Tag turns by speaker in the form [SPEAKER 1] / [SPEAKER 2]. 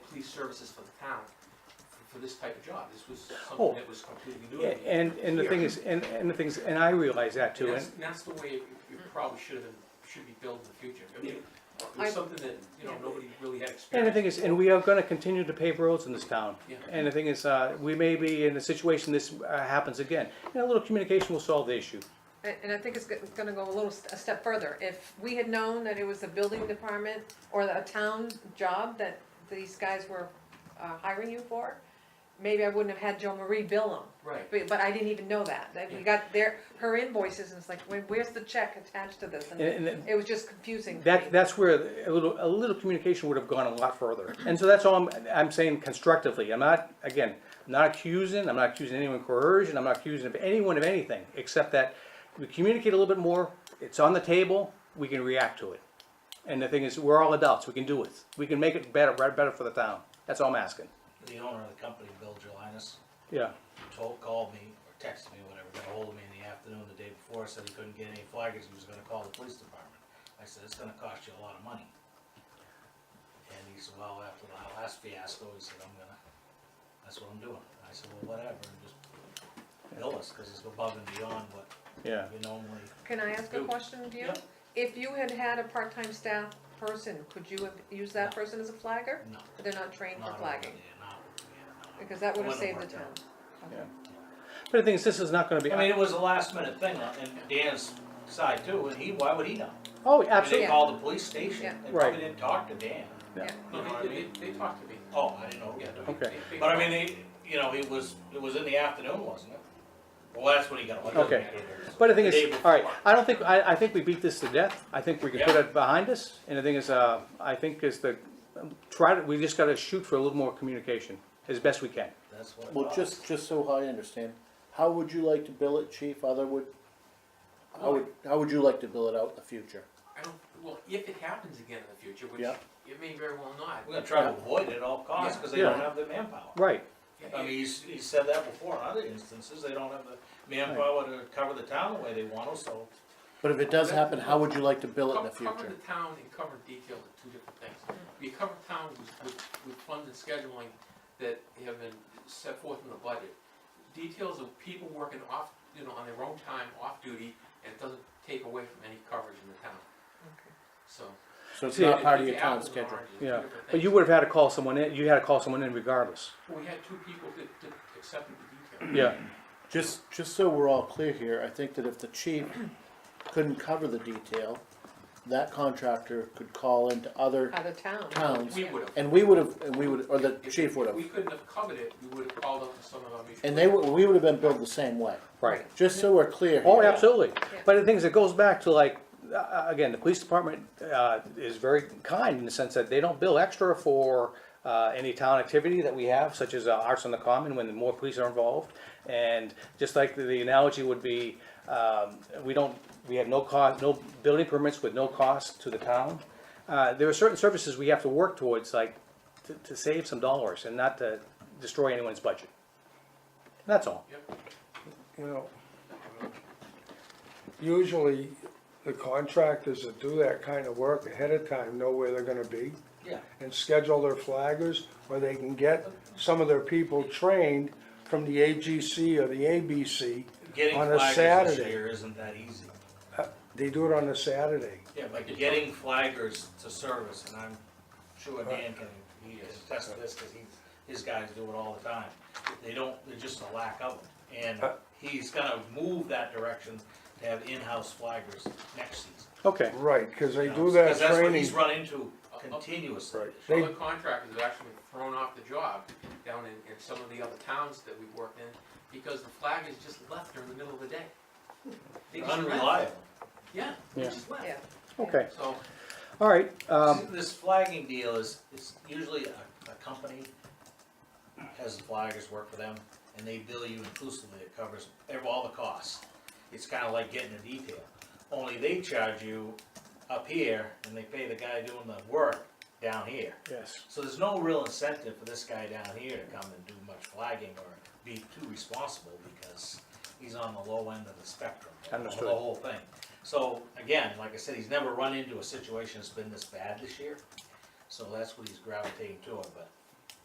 [SPEAKER 1] these services for the town for- for this type of job. This was
[SPEAKER 2] Oh.
[SPEAKER 1] something that was completely new. to me.
[SPEAKER 2] And, and the thing is, and, and the things, and I realize that
[SPEAKER 1] And
[SPEAKER 2] too,
[SPEAKER 1] that's,
[SPEAKER 2] and,
[SPEAKER 1] and that's the way it it probably should have, been- should be built in the future. I mean, it
[SPEAKER 3] I-
[SPEAKER 1] was something that, you know, nobody really had
[SPEAKER 2] and the
[SPEAKER 1] experience.
[SPEAKER 2] thing is, and we are gonna continue to pave roads in this town.
[SPEAKER 1] Yeah.
[SPEAKER 2] And the thing is, uh, we may be in a situation this uh, happens again, and a little communication will solve the issue.
[SPEAKER 3] And, and I think it's go- it's gonna go a little, st- a step further. If we had known that it was the building department or a town job that these guys were uh, hiring you for, maybe I wouldn't have had Joe Marie bill them.
[SPEAKER 1] Right.
[SPEAKER 3] But, but I didn't even know that. That we
[SPEAKER 1] Yeah.
[SPEAKER 3] got their, her invoices and it's like, where- where's the check attached to this? And
[SPEAKER 2] And- and-
[SPEAKER 3] it was just confusing to me.
[SPEAKER 2] That, that's where a little, a little communication would have gone a lot further. And so that's all I'm, I'm saying constructively. I'm not, again, not accusing, I'm not accusing anyone of coercion, I'm not accusing of anyone of anything, except that we communicate a little bit more, it's on the table, we can react to it. And the thing is, we're all adults, we can do it. We can make it better, right, better for the town. That's all I'm asking.
[SPEAKER 4] The owner of the company, Bill Jelinas,
[SPEAKER 2] Yeah,
[SPEAKER 4] told, called me, or texted me, whatever, got ahold of me in the afternoon the day before, said he couldn't get any flaggers, he was gonna call the police department. I said, it's gonna cost you a lot of money. And he said, well, after the last fiasco, he said, I'm gonna, that's what I'm doing. I said, well, whatever, and just bill us, cause it's above and beyond what
[SPEAKER 2] yeah.
[SPEAKER 4] we normally,
[SPEAKER 3] Can I ask a question of you?
[SPEAKER 4] Yeah.
[SPEAKER 3] If you had had a part-time staff person, could you have used that person as a flagger?
[SPEAKER 4] no.
[SPEAKER 3] They're not trained for
[SPEAKER 4] not-
[SPEAKER 3] flagging,
[SPEAKER 4] yeah, not- yeah, no.
[SPEAKER 3] because that would have
[SPEAKER 4] Wouldn't
[SPEAKER 3] saved the
[SPEAKER 4] worked out.
[SPEAKER 3] town. Okay.
[SPEAKER 2] But the thing is, this is not gonna be,
[SPEAKER 4] I mean, it was a last minute thing on, and Dan's side too, and he, why would he know?
[SPEAKER 2] oh,
[SPEAKER 4] I mean,
[SPEAKER 2] absolutely.
[SPEAKER 4] They called the police station,
[SPEAKER 3] Yeah.
[SPEAKER 4] they
[SPEAKER 2] Right.
[SPEAKER 4] probably didn't talk to Dan.
[SPEAKER 2] Yeah.
[SPEAKER 4] You know what I
[SPEAKER 1] No, They,
[SPEAKER 4] mean?
[SPEAKER 1] they they talked to me.
[SPEAKER 4] Oh, I didn't know,
[SPEAKER 1] Yeah,
[SPEAKER 4] yeah.
[SPEAKER 1] no,
[SPEAKER 2] Okay.
[SPEAKER 1] they- they-
[SPEAKER 4] But I mean, they, you know, it was, it was in the afternoon, wasn't it? Well, that's when he got.
[SPEAKER 2] Okay. But the thing
[SPEAKER 4] The
[SPEAKER 2] is,
[SPEAKER 4] day
[SPEAKER 2] all right,
[SPEAKER 4] before.
[SPEAKER 2] I don't think, I, I think we beat this to death. I think we can put
[SPEAKER 4] Yeah.
[SPEAKER 2] it behind us. And the thing is, uh, I think is the, um, try to, we just gotta shoot for a little more communication as best we can.
[SPEAKER 4] That's what. it
[SPEAKER 5] Well,
[SPEAKER 4] was.
[SPEAKER 5] just, just so I understand, how would you like to bill it, chief, other would, how would, how would you like to bill it out in the future?
[SPEAKER 1] I don't, well, if it happens again in the future, which
[SPEAKER 5] Yeah.
[SPEAKER 1] it may very well not.
[SPEAKER 4] We're gonna try to avoid it at all costs, cause they
[SPEAKER 2] Yeah.
[SPEAKER 4] don't have the manpower.
[SPEAKER 2] Right,
[SPEAKER 1] Yeah,
[SPEAKER 4] I mean, he's, he said that before in other instances, they don't have the manpower to cover the town the way they want to, so.
[SPEAKER 5] But if it does happen, how would you like to bill it in
[SPEAKER 1] co-
[SPEAKER 5] the
[SPEAKER 1] Cover
[SPEAKER 5] future?
[SPEAKER 1] the town and cover detail are two different things. We cover town with, with, with funds and scheduling that have been set forth in the budget. Details of people working off, you know, on their own time, off duty, and it doesn't take away from any coverage in the town, so.
[SPEAKER 5] So it's
[SPEAKER 2] See,
[SPEAKER 5] not part of
[SPEAKER 1] The
[SPEAKER 5] your town
[SPEAKER 1] apples and
[SPEAKER 5] schedule.
[SPEAKER 1] oranges, two
[SPEAKER 2] yeah.
[SPEAKER 1] different
[SPEAKER 2] But you
[SPEAKER 1] things.
[SPEAKER 2] would have had to call someone in, you had to call someone in regardless.
[SPEAKER 1] We had two people that, that accepted the detail.
[SPEAKER 2] Yeah,
[SPEAKER 5] Just, just so we're all clear here, I think that if the chief couldn't cover the detail, that contractor could call into other
[SPEAKER 3] Out of town.
[SPEAKER 5] towns,
[SPEAKER 1] We would have.
[SPEAKER 5] and we would have, and we would, or the chief would
[SPEAKER 1] We
[SPEAKER 5] have,
[SPEAKER 1] couldn't have covered it, we would have called up to some of our mutual.
[SPEAKER 5] and they, would- we would have been billed the same way,
[SPEAKER 2] right.
[SPEAKER 5] just so we're clear
[SPEAKER 2] Oh,
[SPEAKER 5] here.
[SPEAKER 2] absolutely. But the thing is, it goes back to like, uh, again, the police department, uh, is very kind in the sense that they don't bill extra for, uh, any town activity that we have, such as uh, Arts on the Common, when more police are involved. And just like the- the analogy would be, um, we don't, we have no cost, no building permits with no cost to the town. Uh, there are certain services we have to work towards, like, to, to save some dollars and not to destroy anyone's budget. That's all.
[SPEAKER 1] Yep.
[SPEAKER 6] you know, usually the contractors that do that kind of work ahead of time know where they're gonna be
[SPEAKER 4] Yeah.
[SPEAKER 6] and schedule their flaggers, or they can get some of their people trained from the AGC or the ABC.
[SPEAKER 4] Getting
[SPEAKER 6] On a
[SPEAKER 4] flaggers this
[SPEAKER 6] Saturday.
[SPEAKER 4] year isn't that easy.
[SPEAKER 6] They do it on a Saturday.
[SPEAKER 4] Yeah, but getting flaggers to service, and I'm sure Dan can, he can attest to this, cause he, his guys do it all the time. They don't, they're just a lack of it, and
[SPEAKER 6] Uh,
[SPEAKER 4] he's gonna move that direction to have in-house flaggers next season.
[SPEAKER 2] Okay.
[SPEAKER 6] Right, cause they
[SPEAKER 4] you
[SPEAKER 6] do
[SPEAKER 4] know,
[SPEAKER 6] that
[SPEAKER 4] 'cause that's what
[SPEAKER 6] training.
[SPEAKER 4] he's run into continuously.
[SPEAKER 6] Right. They-
[SPEAKER 1] Other contractors have actually been thrown off the job down in, in some of the other towns that we've worked in, because the flag is just left during the middle of the day. They just left.
[SPEAKER 4] Unreliable.
[SPEAKER 1] Yeah, they
[SPEAKER 2] Yeah.
[SPEAKER 1] just
[SPEAKER 3] Yeah.
[SPEAKER 1] left,
[SPEAKER 2] Okay,
[SPEAKER 1] so,
[SPEAKER 2] all right, um,
[SPEAKER 4] See, This flagging deal is, it's usually a, a company has the flaggers work for them, and they bill you inclusively, it covers ev- all the costs. It's kinda like getting a detail, only they charge you up here, and they pay the guy doing the work down here.
[SPEAKER 2] yes,
[SPEAKER 4] So there's no real incentive for this guy down here to come and do much flagging or be too responsible because he's on the low end of the spectrum. of
[SPEAKER 2] Understood.
[SPEAKER 4] The whole thing. So again, like I said, he's never run into a situation that's been this bad this year. So that's what he's gravitating toward, but